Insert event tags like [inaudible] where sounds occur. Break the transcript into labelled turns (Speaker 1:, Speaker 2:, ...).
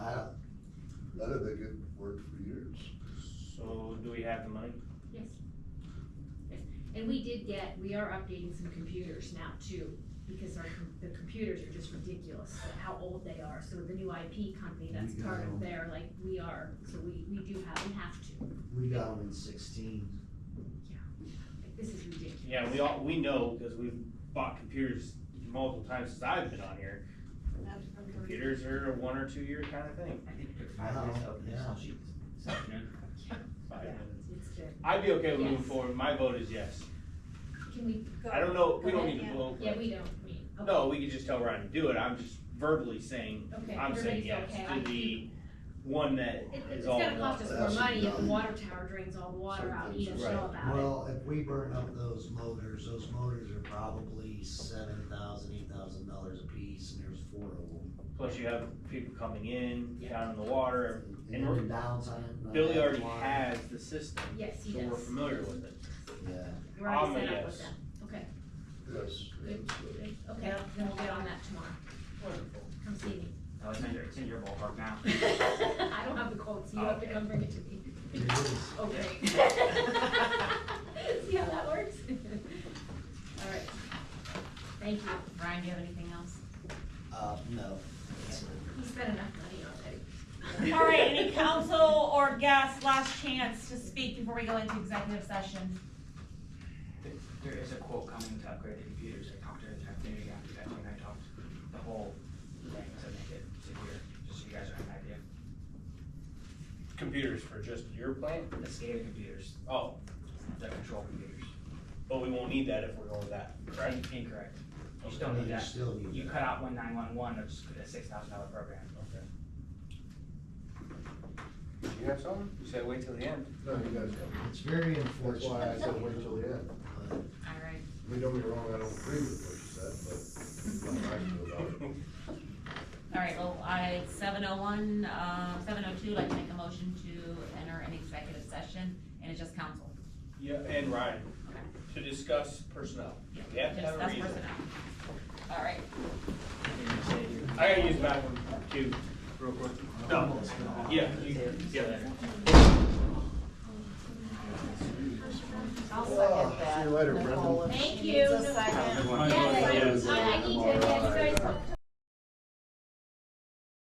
Speaker 1: worked for years.
Speaker 2: So do we have the money?
Speaker 3: Yes. Yes, and we did get, we are updating some computers now too, because our, com- the computers are just ridiculous, how old they are. So the new IP company that's
Speaker 4: We
Speaker 3: part
Speaker 4: got
Speaker 3: of
Speaker 4: 'em.
Speaker 3: their, like, we are, so we, we do have, we have to.
Speaker 4: We got them in sixteen.
Speaker 3: Like, This is ridiculous.
Speaker 2: Yeah, we all, we know, because we've bought computers multiple times since I've been on here. Mhm. Computers are a one or two year kind of thing.
Speaker 5: I think it took five minutes to open the
Speaker 4: Yeah.
Speaker 5: Excel sheet this afternoon.
Speaker 2: Five
Speaker 3: Yeah,
Speaker 2: minutes.
Speaker 3: It's good.
Speaker 2: I'd be okay with moving
Speaker 3: Yes.
Speaker 2: forward, my vote is yes.
Speaker 3: Can we go?
Speaker 2: I don't know, we
Speaker 3: go
Speaker 2: don't
Speaker 3: ahead,
Speaker 2: need to vote.
Speaker 3: Yeah, we don't, we. okay.
Speaker 2: No, we could just tell Ryan to do it, I'm just verbally saying,
Speaker 3: Okay,
Speaker 2: I'm saying
Speaker 3: everybody's
Speaker 2: yes
Speaker 3: okay. I-
Speaker 2: to the one that
Speaker 3: It, it's
Speaker 2: is all
Speaker 3: gonna
Speaker 2: in
Speaker 3: cost
Speaker 2: one.
Speaker 3: us more money if the
Speaker 1: Thousand
Speaker 3: water tower drains all the water out, you don't
Speaker 2: Right.
Speaker 3: know about it.
Speaker 4: Well, if we burn up those motors, those motors are probably seven thousand, eight thousand dollars a piece, and there's four of them.
Speaker 2: Plus you have people coming in,
Speaker 3: Yeah.
Speaker 2: down in the water,
Speaker 4: And
Speaker 2: we're-
Speaker 4: then downtime. uh,
Speaker 2: Billy already
Speaker 4: water.
Speaker 2: has the system,
Speaker 3: Yes, he
Speaker 2: so we're
Speaker 3: does.
Speaker 2: familiar with it.
Speaker 4: Yeah.
Speaker 3: We're already
Speaker 2: I'm a
Speaker 3: set up
Speaker 2: yes.
Speaker 3: with that. Okay,
Speaker 1: Yes.
Speaker 3: good, okay, then we'll get on that tomorrow.
Speaker 2: Wonderful.
Speaker 3: Come see me.
Speaker 5: Oh, it's in your, it's in your ballpark now.
Speaker 3: I don't have the cold, so you have to come bring it to me.
Speaker 4: It is.
Speaker 3: Oh, great. See how that works? All right. Thank you.
Speaker 6: Brian, do you have anything else?
Speaker 4: Uh, no. That's it.
Speaker 3: He spent enough money already.
Speaker 6: All
Speaker 3: [laughs]
Speaker 6: right, any council or guests, last chance to speak before we go into executive session?
Speaker 5: There is a quote coming to upgrade the computers. I talked to her this afternoon again, after that when I talked, the whole thing to make it secure, just so you guys have an idea.
Speaker 2: Computers for just your plant?
Speaker 5: The SCADA computers,
Speaker 2: Oh,
Speaker 5: the control computers.
Speaker 2: but we won't need that if we're going with that, right?
Speaker 5: In- Incorrect.
Speaker 4: Oh,
Speaker 5: You still need
Speaker 4: You
Speaker 5: that.
Speaker 4: still need
Speaker 5: You
Speaker 4: that.
Speaker 5: cut out one nine one one, it's a six thousand dollar program. [laughs]
Speaker 2: Okay. You have something? You said wait till the end.
Speaker 1: No, you guys
Speaker 4: It's very
Speaker 1: don't. That's
Speaker 4: unfortunate.
Speaker 1: why I said wait till the end.
Speaker 4: but
Speaker 6: All right.
Speaker 1: I mean, don't get me wrong, I don't agree with what you said, but that's how I feel about it.
Speaker 6: All right, well, I, seven oh one, uh, seven oh two, I'd like to make a motion to enter an executive session, and it's just council.
Speaker 2: [laughs] Yeah, and Ryan,
Speaker 6: Okay.
Speaker 2: to discuss personnel. We have to
Speaker 6: Just
Speaker 2: have a
Speaker 6: that's
Speaker 2: reason.
Speaker 6: personnel. All right.
Speaker 5: You're gonna say you're-
Speaker 2: I gotta use the bathroom too.
Speaker 5: Real quick.
Speaker 2: No, yeah, you, yeah.
Speaker 7: I'll
Speaker 1: Oh,
Speaker 7: second that.
Speaker 1: see you later,
Speaker 7: Nicole,
Speaker 1: Brendan.
Speaker 7: if
Speaker 3: Thank
Speaker 7: she
Speaker 3: you.
Speaker 7: needs a
Speaker 3: No-
Speaker 7: second.
Speaker 3: Yes, I- I need to, you guys